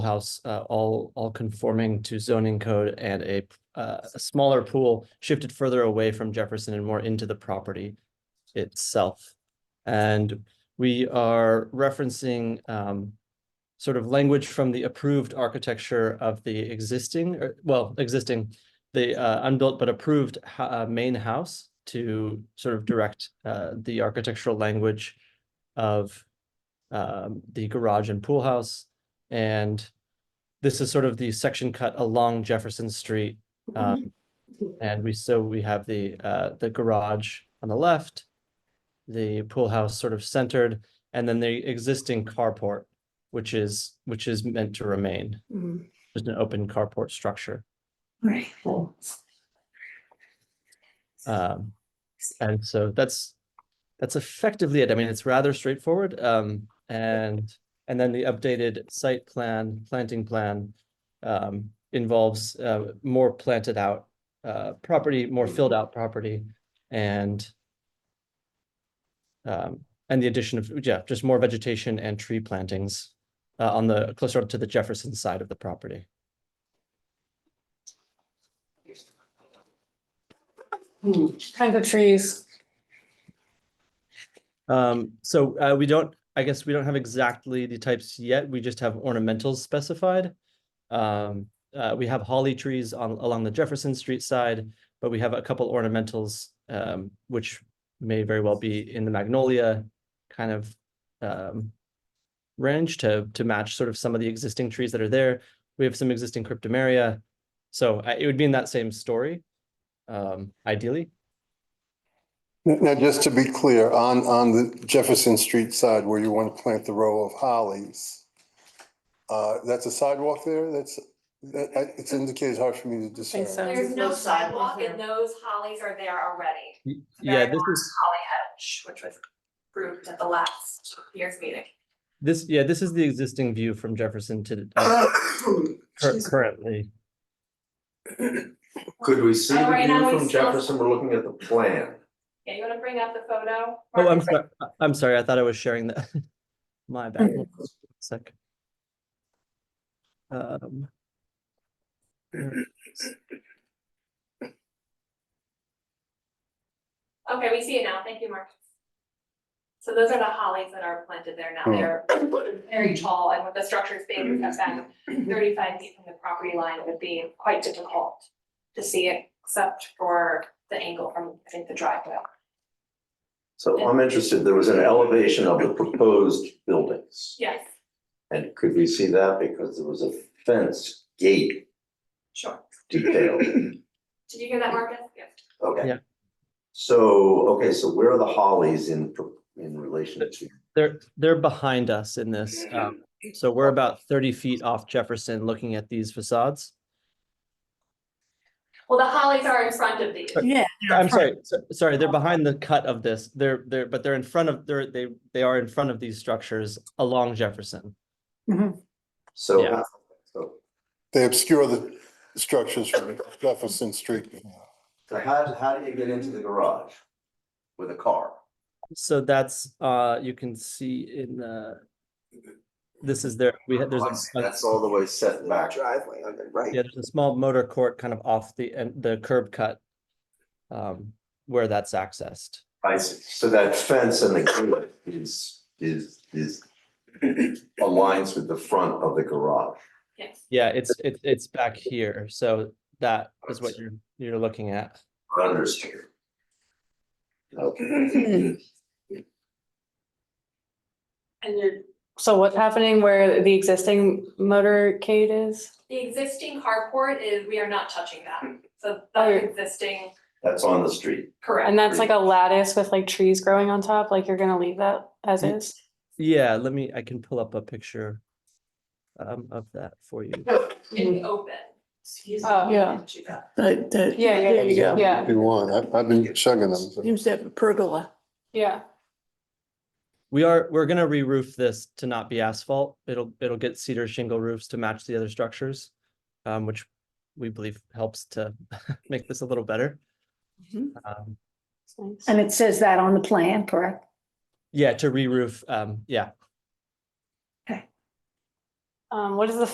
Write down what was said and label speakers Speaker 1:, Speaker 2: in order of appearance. Speaker 1: house, uh, all, all conforming to zoning code and a, uh, a smaller pool shifted further away from Jefferson and more into the property itself. And we are referencing, um, sort of language from the approved architecture of the existing, or, well, existing, the, uh, unbuilt but approved, ho- uh, main house to sort of direct, uh, the architectural language of, um, the garage and pool house. And this is sort of the section cut along Jefferson Street. Um, and we, so we have the, uh, the garage on the left, the pool house sort of centered, and then the existing carport, which is, which is meant to remain,
Speaker 2: Mm,
Speaker 1: just an open carport structure.
Speaker 2: Right.
Speaker 1: Um, and so that's, that's effectively it. I mean, it's rather straightforward. Um, and, and then the updated site plan, planting plan um, involves uh, more planted out uh, property, more filled out property and um, and the addition of, yeah, just more vegetation and tree plantings uh, on the, closer up to the Jefferson side of the property.
Speaker 2: Kind of trees.
Speaker 1: Um, so uh, we don't, I guess we don't have exactly the types yet. We just have ornamentals specified. Um, uh, we have holly trees on along the Jefferson Street side, but we have a couple ornamentals um, which may very well be in the magnolia kind of um, range to to match sort of some of the existing trees that are there. We have some existing cryptomeria, so uh, it would be in that same story, um, ideally.
Speaker 3: Now- Now, just to be clear, on, on the Jefferson Street side where you want to plant the row of hollies, uh, that's a sidewalk there? That's, that, I- it's indicated hard for me to discern.
Speaker 2: so.
Speaker 4: There's no
Speaker 2: No sidewalk
Speaker 4: sidewalk and those hollies are there already.
Speaker 1: Y-
Speaker 4: Very
Speaker 1: Yeah, this
Speaker 4: long
Speaker 1: is.
Speaker 4: Holly hedge, which was approved at the last year's meeting.
Speaker 1: This, yeah, this is the existing view from Jefferson to uh, cur- currently.
Speaker 5: Could we see
Speaker 4: Oh,
Speaker 5: the
Speaker 4: right now
Speaker 5: view
Speaker 4: we
Speaker 5: from
Speaker 4: still-
Speaker 5: Jefferson? We're looking at the plan.
Speaker 4: Yeah, you wanna bring up the photo?
Speaker 1: Oh, I'm
Speaker 4: Mark?
Speaker 1: sorry. I'm sorry. I thought I was sharing that. My bad. Hold on a Sec. Um,
Speaker 4: Okay, we see it now. Thank you, Mark. So those are the hollies that are planted there
Speaker 3: Hmm.
Speaker 4: now. They're very tall and with the structures being cut back thirty-five feet from the property line, it would be quite difficult to see it except for the angle from, I think, the driveway.
Speaker 5: So I'm interested, there was an elevation of the proposed buildings.
Speaker 4: Yes,
Speaker 5: And could we see that because there was a fence gate
Speaker 4: sure.
Speaker 5: detail?
Speaker 4: Did you hear that, Marcus? Yes.
Speaker 5: Okay.
Speaker 1: Yeah.
Speaker 5: So, okay, so where are the hollies in pro- in relation to?
Speaker 1: They're, they're behind us in this. Um, so we're about thirty feet off Jefferson looking at these facades.
Speaker 4: Well, the hollies are in front of these.
Speaker 2: Yeah.
Speaker 1: I'm sorry, so- sorry, they're behind the cut of this. They're, they're, but they're in front of, they're, they, they are in front of these structures along Jefferson.
Speaker 5: So.
Speaker 1: Yeah.
Speaker 5: So
Speaker 3: They obscure the structures from Jefferson Street.
Speaker 5: so how how do you get into the garage? With a car?
Speaker 1: So that's, uh, you can see in the, this is there, we had, there's a. a-
Speaker 5: That's all the way set back. Driveway on the right.
Speaker 1: Yeah, there's a small motor court kind of off the, and the curb cut. Um, where that's accessed.
Speaker 5: I see, so that fence and the gate is, is, is aligns with the front of the garage.
Speaker 4: Yes.
Speaker 1: Yeah, it's, it's, it's back here, so that is what you're, you're looking at.
Speaker 5: Understood. Okay.
Speaker 4: And you
Speaker 2: So what's happening where the existing motorcade is?
Speaker 4: the existing carport is, we are not touching that. So
Speaker 2: Oh,
Speaker 4: the
Speaker 2: you're-
Speaker 4: existing,
Speaker 5: That's on the street.
Speaker 2: And
Speaker 4: correct.
Speaker 2: that's like a lattice with like trees growing on top, like you're gonna leave that as
Speaker 1: Mm.
Speaker 2: is?
Speaker 1: Yeah, let me, I can pull up a picture. Um, of that for you.
Speaker 4: It's open. Excuse me.
Speaker 2: Oh, yeah.
Speaker 6: That, that,
Speaker 2: Yeah, yeah,
Speaker 6: there you go.
Speaker 2: Yeah.
Speaker 3: If you want, I've, I've been chugging them. but-
Speaker 6: Seems to have a pergola.
Speaker 2: Yeah.
Speaker 1: We are, we're gonna re-roof this to not be asphalt. It'll, it'll get cedar shingle roofs to match the other structures. Um, which we believe helps to make this a little better.
Speaker 6: Mhm.
Speaker 1: Um,
Speaker 2: It's nice.
Speaker 7: And it says that on the plan, correct?
Speaker 1: yeah, to re-roof, um, yeah,
Speaker 2: Um, what is the